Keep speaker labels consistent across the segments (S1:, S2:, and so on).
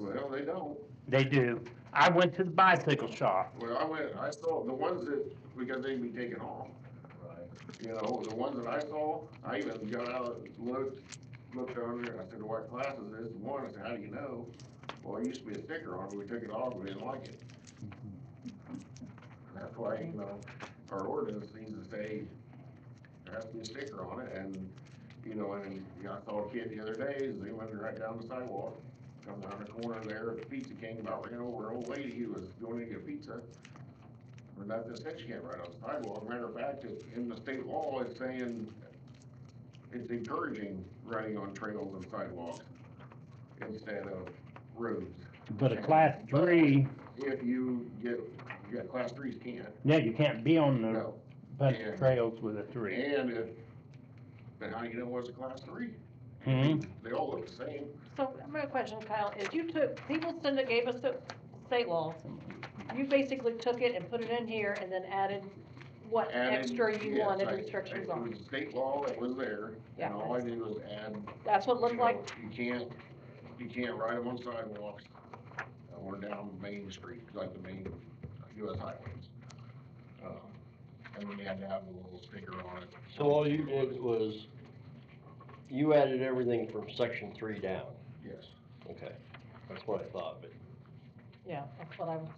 S1: Well, they don't.
S2: They do. I went to the bicycle shop.
S1: Well, I went, I saw the ones that, because they be taken off. You know, the ones that I saw, I even got out, looked, looked on there, and I said, what class is this? One, I said, how do you know? Well, it used to be a sticker on it, we took it off, we didn't like it. And that's why, you know, our ordinance needs to say, there has to be a sticker on it, and, you know, and, you know, I saw a kid the other day, they went right down the sidewalk, come down the corner there, the pizza came about, ran over an old lady who was going to get pizza. Or not this section can't right on the sidewalk, matter of fact, it- in the state law, it's saying, it's encouraging riding on trails and sidewalks instead of roads.
S2: But a class three,
S1: If you get, you got class threes can't,
S2: no, you can't be on the
S1: no.
S2: bus
S1: Yeah.
S2: trails with a three.
S1: And if, but how you know what's a class three?
S2: Hmm?
S1: They all look the same.
S3: So my question, Kyle, is you took, people send it, gave us the state law. You basically took it and put it in here and then added what
S1: Added-
S3: extra you
S1: yes,
S3: wanted
S1: I-
S3: restrictions
S1: It
S3: on.
S1: was state law that was there,
S3: Yeah.
S1: and all I did was add
S3: That's what it looked like.
S1: You can't, you can't ride them on sidewalks, uh, or down main streets, like the main US highways. Uh, And then they had to have a little sticker on it.
S4: So all you did was, you added everything from section three down,
S1: Yes.
S4: okay, that's what I thought, but.
S3: Yeah, that's what I was.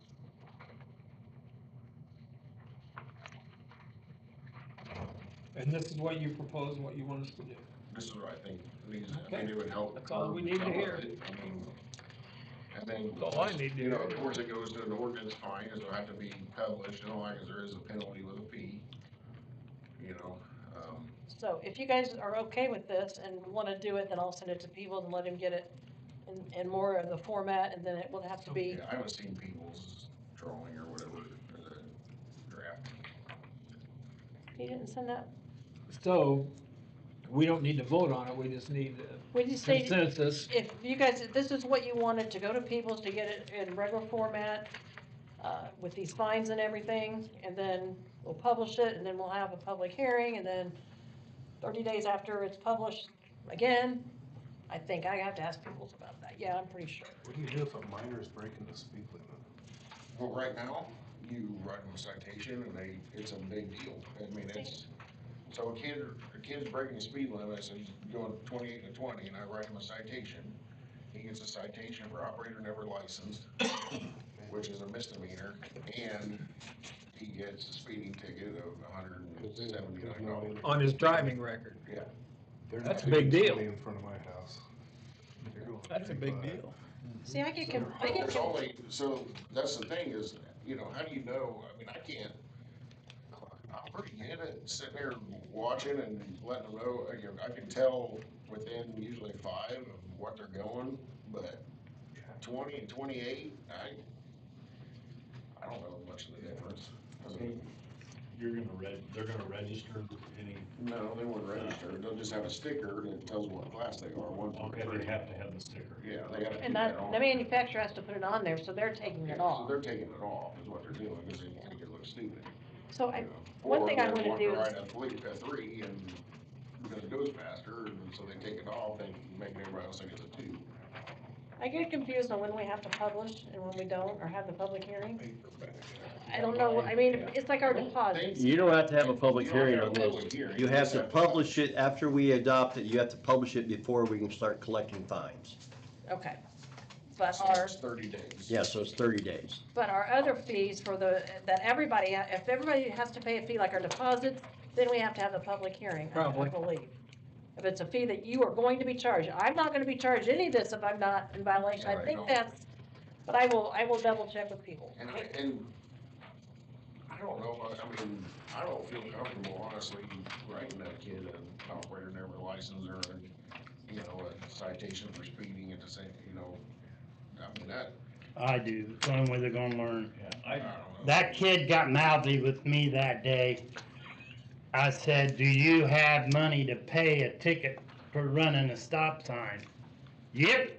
S5: And this is what you propose and what you want us to do.
S1: This is what I think, needs, I think
S5: Okay.
S1: it would help.
S5: That's all we need to
S1: curb some of
S5: hear.
S1: it. I mean, And then.
S5: That's all I need to
S1: You know,
S5: hear.
S1: of course, it goes to an ordinance fine, it'll have to be published, and all that, 'cause there is a penalty with a fee. You know, um,
S3: So if you guys are okay with this and wanna do it, then I'll send it to people and let him get it in, in more of the format and then it will have to be,
S1: yeah, I haven't seen people's drawing or whatever, uh, or the draft.
S3: he didn't send that,
S5: So, we don't need to vote on it, we just need a
S3: we just need.
S5: consensus.
S3: if you guys, if this is what you wanted, to go to Peoples to get it in regular format, uh, with these fines and everything, and then we'll publish it, and then we'll have a public hearing, and then thirty days after it's published, again, I think I have to ask Peoples about that, yeah, I'm pretty sure.
S6: What do you do if a minor is breaking the speed limit?
S1: Well, right now, you write them a citation and they, it's a big deal. I mean, it's, so a kid, a kid's breaking the speed limit, so he's going twenty-eight to twenty, and I write him a citation. He gets a citation for operator never licensed, which is a misdemeanor, and he gets a speeding ticket of hundred and seventy-nine dollars.
S5: On his driving record.
S6: They're
S5: That's
S6: not
S5: a big
S6: doing
S5: deal.
S6: twenty In front of my house. They're going thirty-five.
S3: See, I get, com- I get,
S1: There's
S3: com-
S1: only, so that's the thing is, you know, how do you know, I mean, I can't, I'm pretty good at sitting there watching and letting them know, you know, I can tell within usually five of what they're going, but twenty and twenty-eight, I, I don't know much of the difference. I mean,
S7: You're gonna reg, they're gonna register any,
S1: No, they weren't registered, uh, they'll just have a sticker that tells what class they are, one,
S7: okay,
S1: two,
S7: they
S1: three.
S7: have to have the sticker.
S1: Yeah, they gotta keep
S3: and
S1: that
S3: that,
S1: on.
S3: the manufacturer has to put it on there, so they're taking
S1: Yeah,
S3: it
S1: so
S3: off.
S1: They're taking it off, is what they're doing, because they think it looks stupid.
S3: So I,
S1: you know.
S3: one
S1: Or
S3: thing I
S1: they
S3: wanna
S1: want
S3: do is-
S1: Ride a police at three and, because it goes faster, and so they take it off, they make everybody else think it's a two.
S3: I get confused on when we have to publish and when we don't, or have the public hearing. I don't know, I mean, it's like our deposit.
S8: You don't have to have a public
S1: You don't have
S8: hearing
S1: a
S8: on
S1: public
S8: this.
S1: hearing.
S8: You have to publish it after we adopt it. You have to publish it before we can start collecting fines.
S3: Okay. But
S1: So
S3: our,
S1: It's thirty days.
S8: Yeah, so it's thirty days.
S3: but our other fees for the, that everybody, if everybody has to pay a fee like our deposits, then we have to have the public hearing, I- I
S5: Probably.
S3: believe. If it's a fee that you are going to be charged, I'm not gonna be charged any of this if I'm not in violation, I
S1: Right.
S3: think that's, but I will, I will double check with people.
S1: And I, and I don't know, I- I mean, I don't feel comfortable honestly writing that kid an operator never licensed or, a, you know, a citation for speeding at the same, you know, I mean, that,
S2: I do. It's the only way they're gonna learn.
S7: Yeah,
S1: I
S7: I,
S1: don't know.
S2: That kid got mouthy with me that day. I said, do you have money to pay a ticket for running a stop sign? Yep,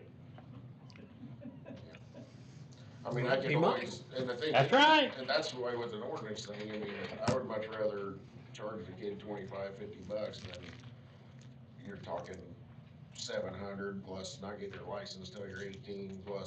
S1: I mean, I
S5: He
S1: can
S5: might.
S1: always, and the thing.
S2: That's right.
S1: And that's the way with an ordinance thing, I mean, I would much rather charge the kid twenty-five, fifty bucks than you're talking seven hundred plus not get your license till you're eighteen plus